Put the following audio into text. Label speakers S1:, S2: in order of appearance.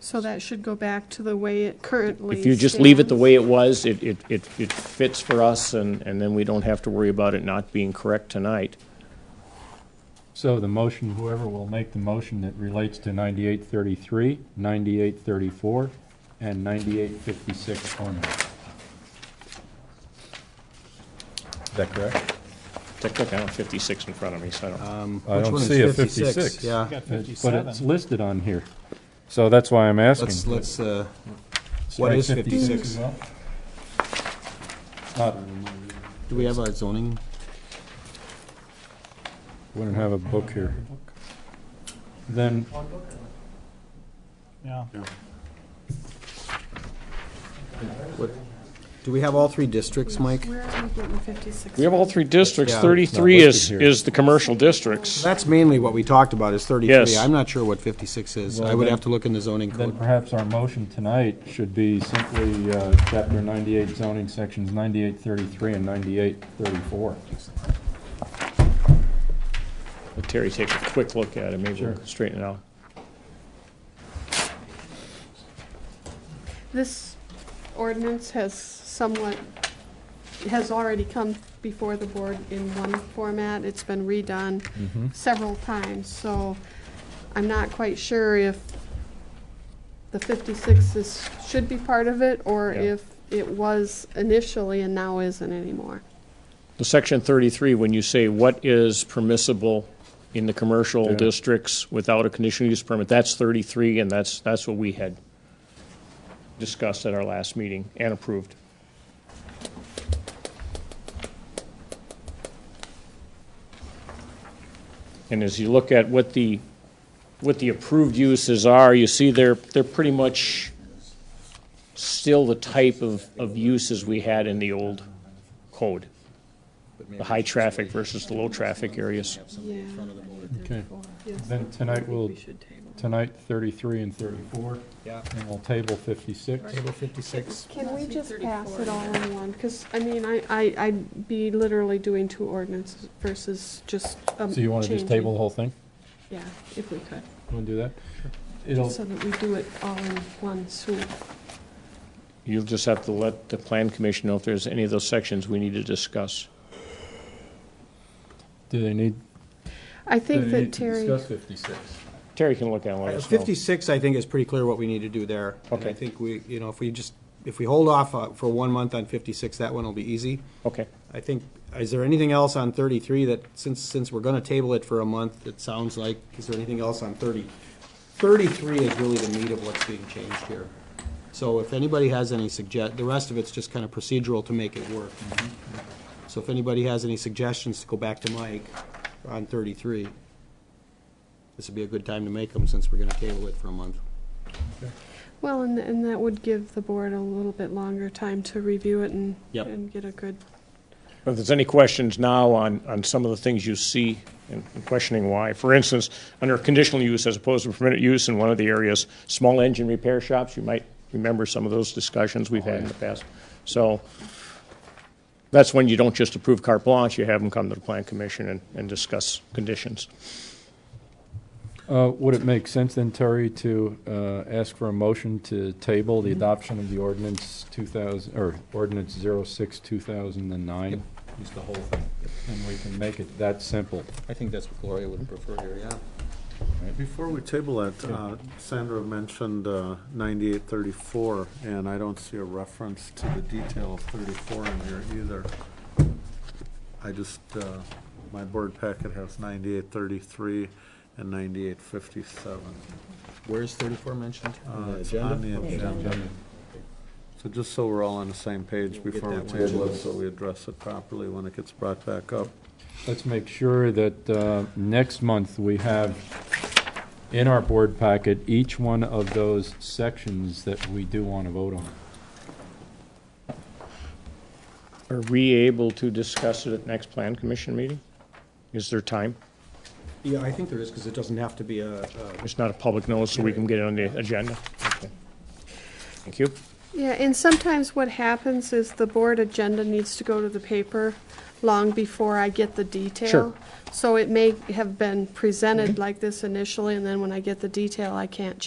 S1: So that should go back to the way it currently
S2: If you just leave it the
S1: stands.
S2: way it was, it, it, it it fits for us, and, and then we don't have to worry about it not being correct tonight.
S3: So the motion, whoever will make the motion that relates to 9833, 9834, and 9856 only. Is that correct?
S2: Technically, I have 56 in front of me, so I don't.
S3: I
S4: Which
S3: don't
S4: one is
S3: see a
S4: 56?
S3: 56.
S4: Yeah.
S3: It's- But it's listed on here. So that's why I'm asking.
S4: Let's, let's, uh, what is
S3: Strike
S4: 56?
S3: as well? Not,
S4: Do we have a zoning?
S3: wouldn't have a book here. Then,
S5: Yeah.
S4: What, do we have all three districts, Mike?
S1: Where are we getting 56?
S2: We have all three districts.
S4: Yeah, it's not
S2: 33 is,
S3: listed here.
S2: is the commercial districts.
S4: That's mainly what we talked about, is 33.
S2: Yes.
S4: I'm not sure what 56 is.
S3: Well,
S4: I would
S3: then-
S4: have to look in the zoning
S3: then
S4: code.
S3: perhaps our motion tonight should be simply uh, Chapter 98 zoning sections 9833 and 9834.
S2: Let Terry take a quick look at it, maybe we'll
S3: Sure.
S2: straighten it out.
S1: This ordinance has somewhat, has already come before the board in one format. It's been redone
S2: Mm-hmm.
S1: several times, so I'm not quite sure if the 56 is, should be part of it, or
S2: Yeah.
S1: if it was initially and now isn't anymore.
S2: The section 33, when you say what is permissible in the commercial
S3: Yeah.
S2: districts without a conditional use permit, that's 33, and that's, that's what we had discussed at our last meeting and approved. And as you look at what the, what the approved uses are, you see they're, they're pretty much still the type of, of uses we had in the old code the high traffic versus the low traffic areas.
S1: Yeah.
S3: Okay.
S1: Yes.
S3: Then tonight we'll,
S1: We should table.
S3: tonight 33 and 34,
S4: Yeah.
S3: and we'll table 56.
S4: Table 56.
S1: Can we just pass it all in one? Because, I mean, I, I, I'd be literally doing two ordinances versus just, um,
S3: So you want to just table
S1: changing.
S3: the whole thing?
S1: Yeah, if we could,
S3: Want to do that? It'll,
S1: so that we do it all in one swoop.
S2: You'll just have to let the plan commission know if there's any of those sections we need to discuss.
S3: do they need?
S1: I think that Terry,
S3: 56.
S2: Terry can look at one.
S4: 56, Uh, I think, is pretty clear what we need to do there. And I
S2: Okay.
S4: think we, you know, if we just, if we hold off uh, for one month on 56, that one will be easy.
S2: Okay.
S4: I think, is there anything else on 33 that, since, since we're going to table it for a month, it sounds like, is there anything else on 30? 33 is really the meat of what's being changed here. So if anybody has any suggest, the rest of it's just kind of procedural to make it work. So if anybody has any suggestions to go back to Mike on 33, this would be a good time to make them, since we're going to table it for a month.
S1: well, and, and that would give the board a little bit longer time to review it and,
S4: Yep.
S1: and get a good,
S2: If there's any questions now on, on some of the things you see and questioning why, for instance, under conditional use as opposed to permitted use in one of the areas, small engine repair shops, you might remember some of those discussions we've had in the past. So that's when you don't just approve carte blanche, you have them come to the plan commission and, and discuss conditions.
S3: Uh, Would it make sense then, Terry, to uh, ask for a motion to table the adoption of the ordinance 2000, or ordinance 06, 2009? Just the whole thing. And we can make it that simple.
S4: I think that's what Gloria would prefer here, yeah.
S6: Before we table it, uh, Sandra mentioned uh, 9834, and I don't see a reference to the detail of 34 in here either. I just, uh, my board packet has 9833 and 9857.
S4: Where's 34 mentioned?
S6: Uh,
S4: on the
S6: It's
S4: agenda?
S6: on the agenda. So just so we're all on the same page
S4: We'll get
S6: before we
S4: that one.
S6: table it, so we address it properly when it gets brought back up.
S3: Let's make sure that uh, next month we have in our board packet each one of those sections that we do want to vote on.
S2: Are we able to discuss it at next plan commission meeting? Is there time?
S4: Yeah, I think there is, because it doesn't have to be a, a-
S2: It's not a public notice, so we can get it on the agenda. Okay. Thank you.
S1: Yeah, and sometimes what happens is the board agenda needs to go to the paper long before I get the detail.
S2: Sure.
S1: So it may have been presented like this initially, and then when I get the detail, I can't